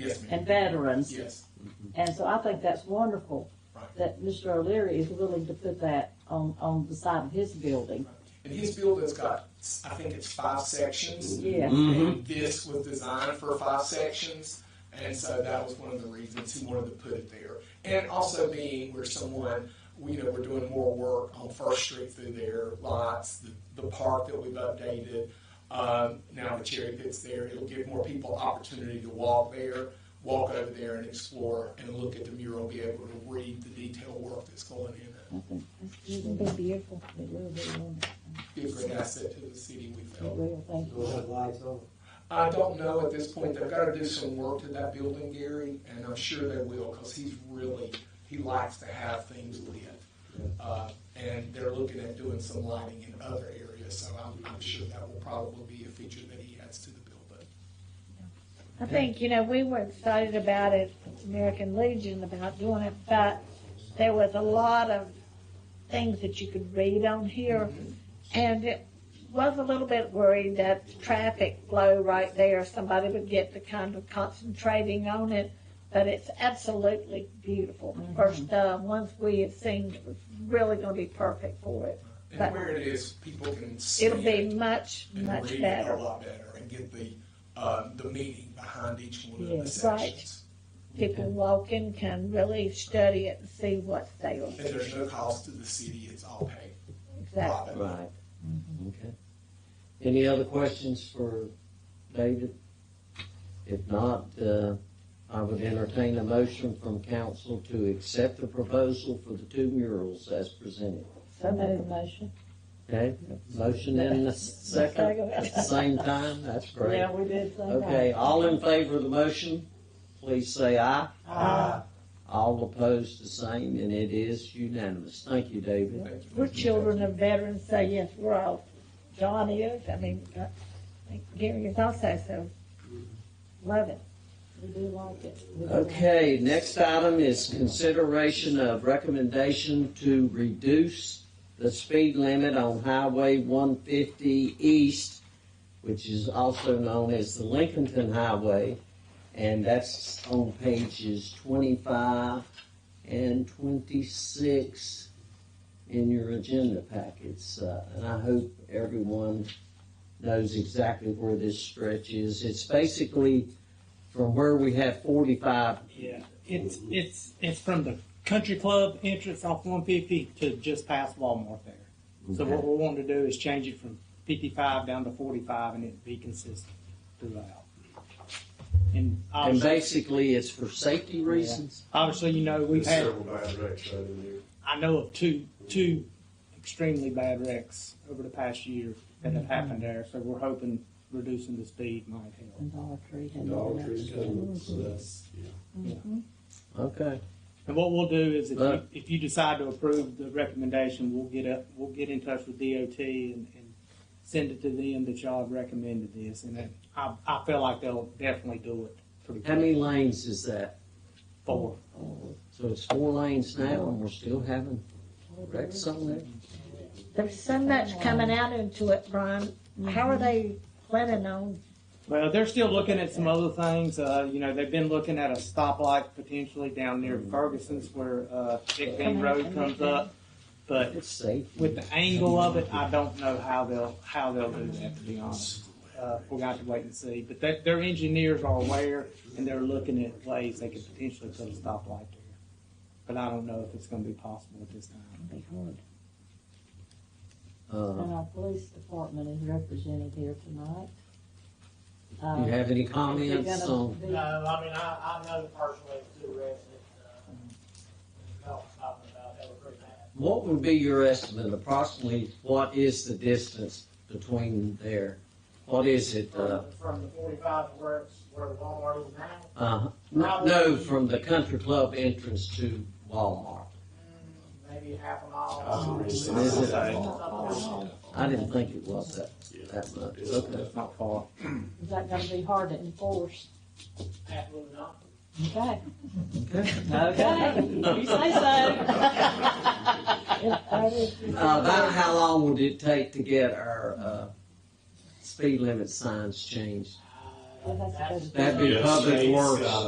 Yes, ma'am. and veterans. Yes, And so I think that's wonderful right. that Mr. O'Leary is willing to put that on, on the side of his building. And his building's got, I think it's five sections. Yeah. And this was designed for five sections, and so that was one of the reasons he wanted to put it there. And also being where someone, we you know, we're doing more work on First Street through there, lots, the, the park that we've updated. Um, now the cherry pit's there, it'll give more people opportunity to walk there, walk over there and explore and look at the mural, be able to read the detailed work that's going in it. I think It's gonna be beautiful. It will be wonderful. Be a great asset to the city, we It felt. will, thank you. We'll have lights on. I don't know at this point. They've got to do some work to that building, Gary, and I'm sure they will because he's really, he likes to have things lit. Uh, and they're looking at doing some lighting in other areas, so I'm, I'm sure that will probably be a feature that he adds to the building. I think, you know, we were excited about it, American Legion, about doing it, but there was a lot of things that you could read on here. And it was a little bit worried that the traffic flow right there, somebody would get to kind of concentrating on it. But it's absolutely beautiful. First, uh, once we have seen, it was really gonna be perfect for it. And But- where it is, people can see It'll be much, and much read it a better. lot better and get the, uh, the meaning behind each one of the Yes. Right. sections. People walking can really study it and see what's there. And there's no cost to the city, it's all paid. Exactly. Profit. Right. Mm-hmm. Okay. Any other questions for David? If not, uh, I would entertain a motion from council to accept the proposal for the two murals as presented. So made the motion. Okay, motion and a second at the same time, that's great. Yeah, we did say that. Okay, all in favor of the motion, please say aye. Aye. All opposed, the same, and it is unanimous. Thank you, David. Thank you. We're children of veterans, so yes, we're all, John is, I mean, uh, Gary is also, so love it. We do like it. We do like it. Okay, next item is consideration of recommendation to reduce the speed limit on Highway 150 East, which is also known as the Lincolnton Highway, and that's on pages 25 and 26 in your agenda packets. Uh, And I hope everyone knows exactly where this stretch is. It's basically from where we have 45 Yeah, it's it's it's from the country club entrance off 150 to just past Walmart there. So what we want to do is change it from 55 down to 45, and it be consistent throughout. And And obviously, basically, it's for safety reasons. obviously, you know, we've There's had several bad wrecks right in there. I know of two two extremely bad wrecks over the past year that have happened there. So we're hoping reducing the speed might help. And Dollar Tree. had Dollar that. Tree's coming, so that's, yeah. Okay. And what we'll do is if Right. you, if you decide to approve the recommendation, we'll get up, we'll get in touch with DOT and, and send it to them that y'all have recommended this. And then I, I feel like they'll definitely do it pretty How many lanes is that? Four. So it's four lanes now, and we're still having wrecks on there? There's so much coming out into it, Brian. How are they planning on? Well, they're still looking at some other things. Uh, you know, they've been looking at a stoplight potentially down near Mm. Ferguson's where, uh, Big Bend Road comes up. But It's safety. with the angle of it, I don't know how they'll, how they'll do that, to be honest. Uh, we'll have to wait and see, but their, their engineers are aware and they're looking at ways they could potentially put a stoplight there. But I don't know if it's gonna be possible at this time. It'd be hard. Uh, And our police department is represented here tonight. Uh, Do you have any comments on, No, I mean, I, I know the person with the two wrecks that, uh, Mel was talking about, that were pretty bad. what would be your estimate approximately, what is the distance between there? What is it, uh, From- From the forty-five to where it's, where the Walmart is now, uh, no, from the country club entrance to Walmart? maybe half a mile. I Oh, was gonna say- Is it- Something like I didn't think it was that, that much. Okay. It's not far. Is that gonna be hard to enforce? that. Absolutely not. Okay. Okay. Okay, you say so. If that is- Uh, About how long would it take to get our uh, speed limit signs changed? Uh, Well, that's a good- That'd be Yes. uh, public Yes. works.